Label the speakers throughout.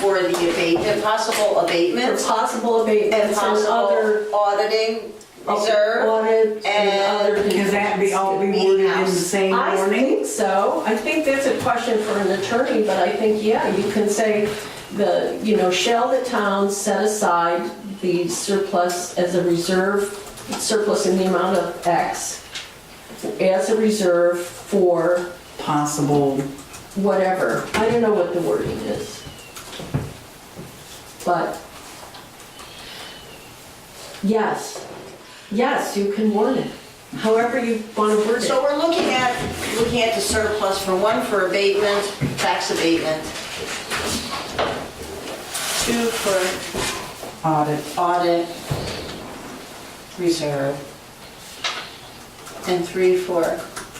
Speaker 1: for the abatement, possible
Speaker 2: For
Speaker 1: abatements
Speaker 2: possible abatements
Speaker 1: and
Speaker 2: and
Speaker 1: possible
Speaker 2: other.
Speaker 1: auditing reserve.
Speaker 2: Audit
Speaker 1: and-
Speaker 2: and other.
Speaker 3: Because that be all be
Speaker 1: Meeting
Speaker 3: worded in the
Speaker 1: house.
Speaker 3: same
Speaker 2: I
Speaker 3: warning?
Speaker 2: think so. I think that's a question for an attorney, but I think, yeah, you can say the, you know, shall the town set aside the surplus as a reserve, surplus in the amount of X as a reserve for
Speaker 3: Possible,
Speaker 2: whatever. I don't know what the wording is. But, yes, yes, you can warn it, however you want to word it.
Speaker 1: So we're looking at, looking at the surplus for one, for abatement, tax abatement. Two, for
Speaker 3: audit,
Speaker 1: audit reserve. And three, for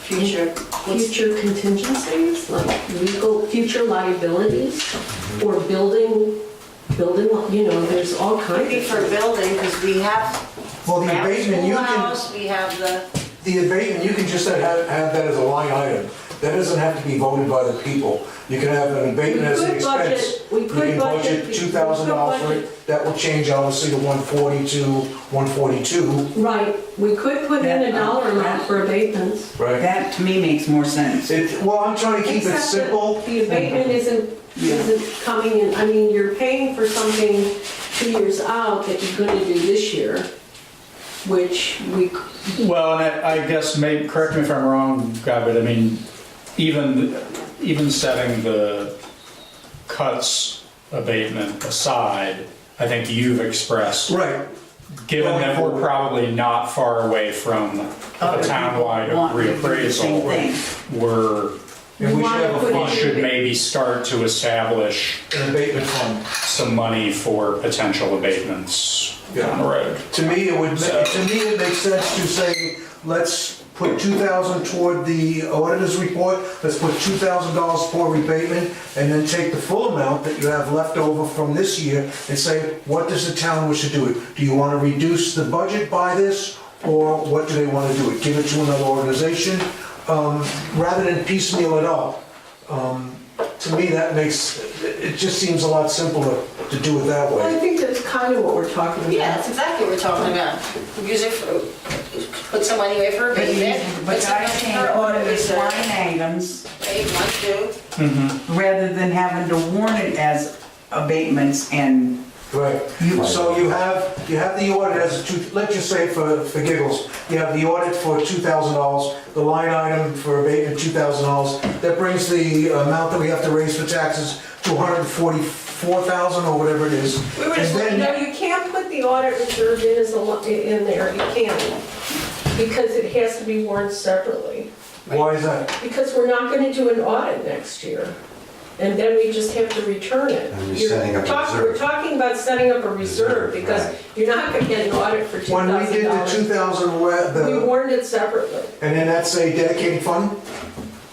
Speaker 1: future. what's-
Speaker 2: future contingencies, like legal, future liabilities,
Speaker 1: Mm-hmm.
Speaker 2: or building, building, you know, there's all kinds
Speaker 1: Maybe
Speaker 2: of.
Speaker 1: for building, because we have
Speaker 4: Well, the
Speaker 1: now
Speaker 4: abatement, you can,
Speaker 1: schoolhouse, we have the,
Speaker 4: the abatement, you can just have, have that as a line item. That doesn't have to be voted by the people. You can have an abatement as
Speaker 2: We
Speaker 4: an
Speaker 2: could budget-
Speaker 4: expense.
Speaker 2: we could
Speaker 4: You can
Speaker 2: budget-
Speaker 4: budget two thousand dollars for
Speaker 2: we could
Speaker 4: it. That will change obviously to one forty to one forty-two,
Speaker 2: Right, we could put in a
Speaker 3: That, uh,
Speaker 2: dollar
Speaker 1: um,
Speaker 2: amount for abatements.
Speaker 4: right?
Speaker 3: that to me makes more sense.
Speaker 4: It, well, I'm trying to keep it
Speaker 2: Except that
Speaker 4: simple.
Speaker 2: The abatement isn't,
Speaker 3: Yeah.
Speaker 2: isn't coming in, I mean, you're paying for something two years out that you're gonna do this year, which we, c-
Speaker 5: Well, and I, I guess, maybe, correct me if I'm wrong, God, but I mean, even, even setting the cuts abatement aside, I think you've expressed,
Speaker 4: Right.
Speaker 5: given that we're probably not far away from a
Speaker 3: Other
Speaker 5: townwide
Speaker 3: people want to do the same thing.
Speaker 5: reappraisal, we're,
Speaker 4: And we should
Speaker 2: Why
Speaker 4: have
Speaker 2: put
Speaker 4: a
Speaker 5: we
Speaker 2: it-
Speaker 4: fund,
Speaker 5: should maybe start to establish
Speaker 4: an abatement fund.
Speaker 5: some money for potential abatements down the road.
Speaker 4: To me, it would,
Speaker 5: So-
Speaker 4: to me, it makes sense to say, let's put two thousand toward the auditor's report, let's put two thousand dollars for rebatement, and then take the full amount that you have left over from this year and say, what does the town wish to do it? Do you wanna reduce the budget by this, or what do they wanna do it? Give it to another organization, um, rather than piecemeal it all. Um, To me, that makes, it it just seems a lot simpler to do it that way.
Speaker 2: I think that's kind of what we're talking about.
Speaker 1: yeah, that's exactly what we're talking about. Use it for, put some money away for
Speaker 3: But you-
Speaker 1: abatement. put
Speaker 3: but
Speaker 1: some
Speaker 3: I
Speaker 1: money
Speaker 3: think
Speaker 1: for audit
Speaker 3: it's line
Speaker 1: reserve.
Speaker 3: items,
Speaker 1: Hey, one, two.
Speaker 3: rather than having to warn it as abatements and,
Speaker 4: Right, so you have, you have the audit as, a two. let's just say for, for giggles, you have the audit for $2,000, the line item for abatement, $2,000, that brings the amount that we have to raise for taxes to $144,000 or whatever it is.
Speaker 2: We were
Speaker 4: And
Speaker 2: just,
Speaker 4: then-
Speaker 2: no, you can't put the audit reserve in as a, lo- in there, you can't. Because it has to be warned separately.
Speaker 4: Why is that?
Speaker 2: Because we're not gonna do an audit next year. And then we just have to return it.
Speaker 6: And you're
Speaker 2: You're
Speaker 6: setting up a
Speaker 2: talk- We're
Speaker 6: reserve.
Speaker 2: talking about setting up a reserve,
Speaker 6: Reserve,
Speaker 2: because
Speaker 6: right.
Speaker 2: you're not gonna get an audit for two
Speaker 4: When we
Speaker 2: thousand
Speaker 4: did the
Speaker 2: dollars.
Speaker 4: 2,000, wa-
Speaker 2: We
Speaker 4: the,
Speaker 2: warned it separately.
Speaker 4: and then that's a dedicated fund?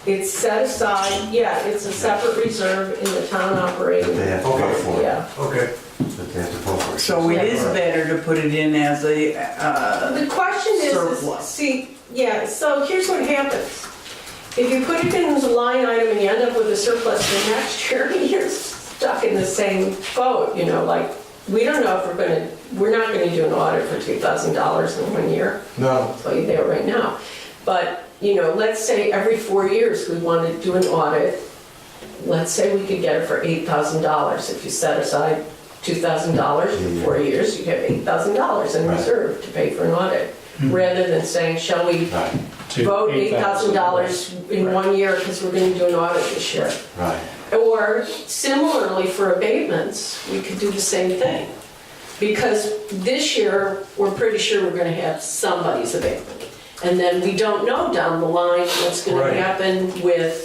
Speaker 2: It's set aside, yeah, it's a separate reserve in the town
Speaker 6: That they
Speaker 2: operating.
Speaker 6: have to vote for. it.
Speaker 2: Yeah.
Speaker 4: Okay,
Speaker 6: That they have to vote for. it.
Speaker 3: so it is better to put it in as a, uh,
Speaker 2: The question is- is,
Speaker 3: Surplus.
Speaker 2: see, yeah, so here's what happens. If you put it in as a line item and you end up with a surplus for next year, you're stuck in the same boat, you know, like, we don't know if we're gonna, we're not gonna do an audit for two thousand dollars in one year,
Speaker 4: no,
Speaker 2: I'll tell you there right now. But, you know, let's say every four years we want to do an audit, let's say we could get it for eight thousand dollars. If you set aside two thousand dollars for four years, you have eight thousand dollars in
Speaker 6: Right.
Speaker 2: reserve to pay for an audit. Rather than saying, shall we
Speaker 6: Right,
Speaker 5: To
Speaker 2: vote Hmm. eight thousand dollars in
Speaker 5: Right.
Speaker 2: one year because we're gonna do an audit this year?
Speaker 6: right.
Speaker 2: Or similarly for abatements, we could do the same thing. Because this year, we're pretty sure we're gonna have somebody's abatement. And then we don't know down the line what's gonna
Speaker 4: Right.
Speaker 2: happen with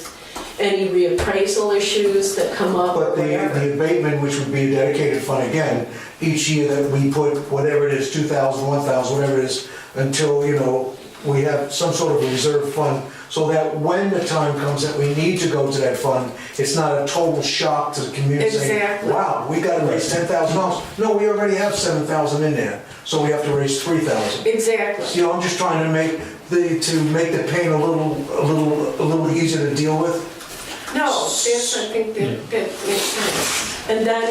Speaker 2: any reappraisal issues that come up or
Speaker 4: but the,
Speaker 2: whatever.
Speaker 4: the abatement, which would be a dedicated fund again, each year that we put whatever it is, 2,000, 1,000, whatever it is, until, you know, we have some sort of reserve fund, so that when the time comes that we need to go to that fund, it's not a total shock to the community saying,
Speaker 2: Exactly.
Speaker 4: wow, we gotta raise $10,000. No, we already have 7,000 in there, so we have to raise 3,000.
Speaker 2: Exactly.
Speaker 4: You know, I'm just trying to make the, to make the pain a little, a little, a little easier to deal with.
Speaker 2: No, that's, I think that, that makes sense. And then